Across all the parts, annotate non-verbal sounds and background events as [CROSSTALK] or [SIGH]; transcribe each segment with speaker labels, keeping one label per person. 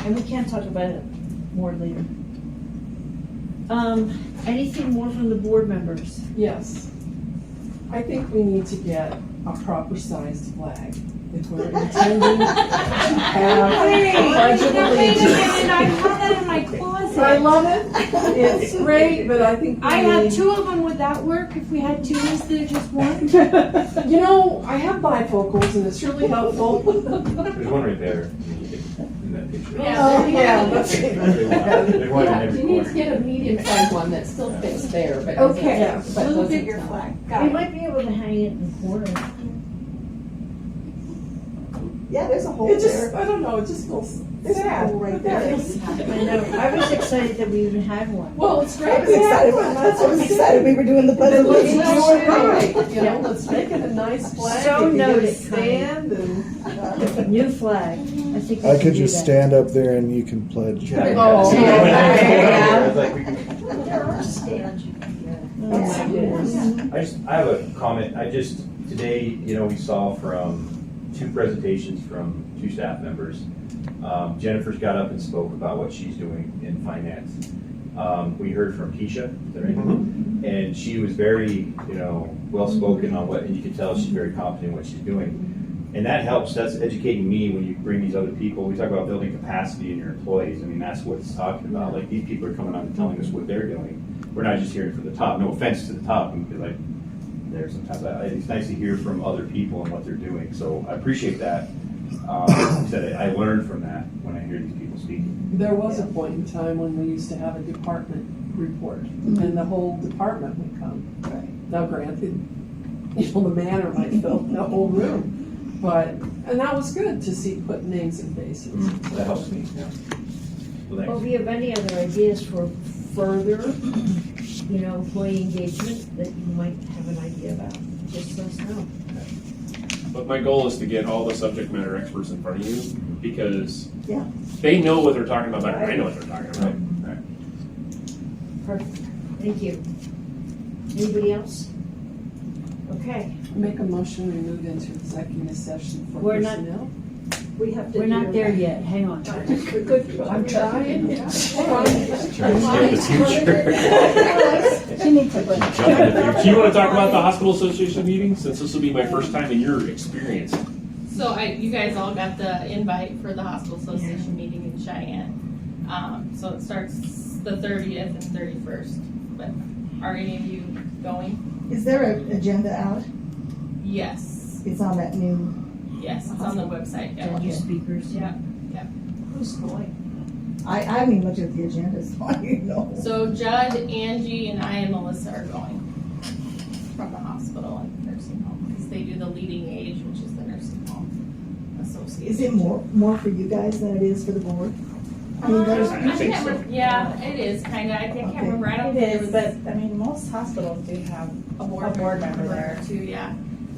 Speaker 1: and we can talk about it more later. Um, anything more from the board members?
Speaker 2: Yes. I think we need to get a proper sized flag if we're intending to have
Speaker 3: Wait,
Speaker 2: a pledge of
Speaker 3: now wait a
Speaker 2: allegiance.
Speaker 3: minute, I have that in my
Speaker 2: I
Speaker 3: closet.
Speaker 2: love it, it's great, but I think we
Speaker 3: I have
Speaker 2: need.
Speaker 3: two of them, would that work if we had two instead of just one?
Speaker 2: [LAUGHS] You know, I have bifocals and it's really helpful.
Speaker 4: There's one right there in that picture.
Speaker 2: Oh, yeah, that's
Speaker 4: They want- they want
Speaker 5: Yeah,
Speaker 4: it in every
Speaker 5: you need to
Speaker 4: corner.
Speaker 5: get a medium-sized one that still fits there, but. doesn't-
Speaker 3: Okay,
Speaker 2: Yeah.
Speaker 5: but
Speaker 3: little
Speaker 5: doesn't-
Speaker 3: bigger flag,
Speaker 1: We
Speaker 3: got it.
Speaker 1: might be able to hang it in the corner.
Speaker 6: Yeah, there's a hole
Speaker 2: It just,
Speaker 6: there.
Speaker 2: I don't know, it just feels
Speaker 6: There's a
Speaker 2: sad.
Speaker 6: hole right
Speaker 2: but there
Speaker 6: there.
Speaker 2: it is.
Speaker 1: [LAUGHS] I know, I was excited that we even had one.
Speaker 2: Well, it's
Speaker 6: I
Speaker 2: great.
Speaker 6: was excited,
Speaker 2: Yeah,
Speaker 6: I was
Speaker 2: that's
Speaker 6: excited we were doing the
Speaker 2: But
Speaker 6: puzzle.
Speaker 2: let's
Speaker 6: meeting.
Speaker 2: do it right, you know, let's make it a nice flag.
Speaker 1: So
Speaker 2: It can get a
Speaker 1: noted, Connie.
Speaker 2: Stand and.
Speaker 1: New flag, I think we
Speaker 7: I
Speaker 1: can
Speaker 7: could
Speaker 1: do
Speaker 7: just
Speaker 1: that.
Speaker 7: stand up there and you can pledge.
Speaker 4: Yeah, yeah.
Speaker 2: Oh,
Speaker 4: [LAUGHS] See, when I
Speaker 1: okay.
Speaker 4: came over, I was like, we can-
Speaker 1: Oh, my goodness.
Speaker 4: I just, I have a comment, I just, today, you know, we saw from two presentations from two staff members. Um, Jennifer's got up and spoke about what she's doing in finance. Um, we heard from Keisha, is that right? And she was very, you know, well-spoken on what, and you could tell she's very confident in what she's doing. And that helps, that's educating me when you bring these other people, we talk about building capacity in your employees, I mean, that's what it's talking about, like, these people are coming out and telling us what they're doing we're not just hearing from the top. No offense to the top, because I, there sometimes, I, it's nice to hear from other people and what they're doing, so I appreciate that. Um, like I said, I I learn from that when I hear these people speaking.
Speaker 2: There was a point in time when we used to have a department report, and the whole department would come. Now granted, [LAUGHS] you know, the manor might fill the whole room, but, and that was good to see put names and faces.
Speaker 4: That helps me, yeah. Well,
Speaker 1: Well,
Speaker 4: thanks.
Speaker 1: if you have any other ideas for further, you know, employee engagement that you might have an idea about, just let us know.
Speaker 8: But my goal is to get all the subject matter experts in front of you because
Speaker 6: Yeah.
Speaker 8: they know what they're talking about and I know what they're talking about.
Speaker 1: Perfect, thank you. Anybody else? Okay,
Speaker 2: Make a motion, we move into executive session for
Speaker 1: We're not-
Speaker 2: personnel.
Speaker 6: We have to.
Speaker 1: we're not there yet, hang on.
Speaker 6: Good.
Speaker 2: I'm trying, yeah.
Speaker 4: Trying to skip the future.
Speaker 6: She needs to.
Speaker 4: Jump in the future.
Speaker 8: Do you want to talk about the hospital association meeting since this will be my first time in your experience?
Speaker 9: So I, you guys all got the invite for the hospital association meeting in Cheyenne. Um, so it starts the thirtieth and thirty-first, but are any of you going?
Speaker 6: [LAUGHS] Is there an agenda out?
Speaker 9: Yes,
Speaker 6: It's on that new.
Speaker 9: yes, it's on the website, yeah.
Speaker 1: Thank you, speakers.
Speaker 9: Yeah.
Speaker 1: Who's going?
Speaker 6: I, I haven't even looked at the agenda, so I don't even know.
Speaker 9: So Judd, Angie, and I and Melissa are going from the hospital and nursing home, because they do the leading age, which is the nursing home association.
Speaker 6: Is it more, more for you guys than it is for the board? I mean, there's-
Speaker 8: I think
Speaker 9: can't
Speaker 8: so.
Speaker 9: rem- Yeah, it is, kinda, I think, I can't remember, I don't think it was.
Speaker 3: I mean, most hospitals do have
Speaker 9: a board, member there too, yeah.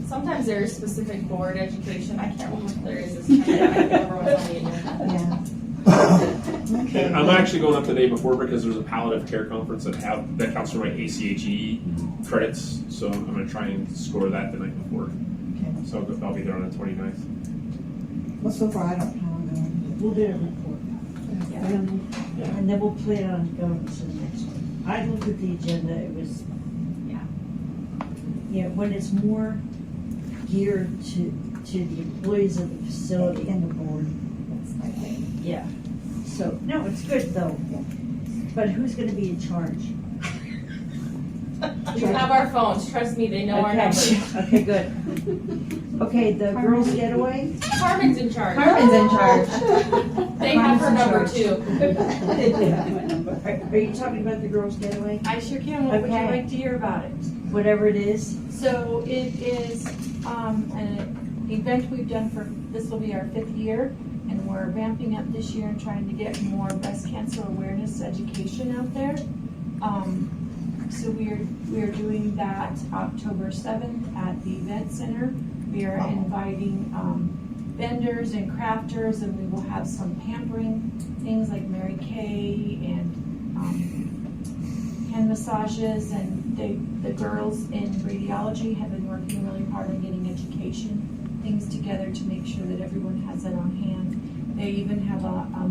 Speaker 9: Sometimes there is specific board education, I can't remember if there is, it's kind of like everyone's on the agenda.
Speaker 4: [LAUGHS]
Speaker 6: Yeah. Okay.
Speaker 8: And I'm actually going up the day before because there's a palliative care conference that have, that counts for my ACHE E credits. So I'm gonna try and score that the night before.
Speaker 6: Okay.
Speaker 8: So I'll- I'll be there on the 29th.
Speaker 6: Well, so far, I don't know. I'm going.
Speaker 1: We'll do a report, and then we'll play it on going to the next one. I looked at the agenda, it was, yeah. Yeah, when it's more geared to, to the employees of the facility and the board,
Speaker 6: That's my thing.
Speaker 1: Yeah, so, no, it's good though. But who's gonna be in charge?
Speaker 9: We have our phones, trust me, they know our
Speaker 1: Okay.
Speaker 9: numbers.
Speaker 1: Okay, good. [LAUGHS] Okay, the girls getaway?
Speaker 9: Carmen's in charge.
Speaker 3: Carmen's in charge.
Speaker 9: They have her number
Speaker 1: Carmen's in
Speaker 9: too.
Speaker 1: Are are you talking about the girls getaway?
Speaker 3: I sure can,
Speaker 1: What would you like
Speaker 3: to hear about it?
Speaker 1: Whatever it is?
Speaker 3: So it is, um, an event we've done for, this will be our fifth year, and we're ramping up this year and trying to get more breast cancer awareness education out there. Um, so we are, we are doing that October seventh at the event center. We are inviting, um, vendors and crafters, and we will have some pampering things like Mary Kay and, um, hand massages, and they the girls in radiology have been working really hard on getting education things together to make sure that everyone has it on hand. They even have a, a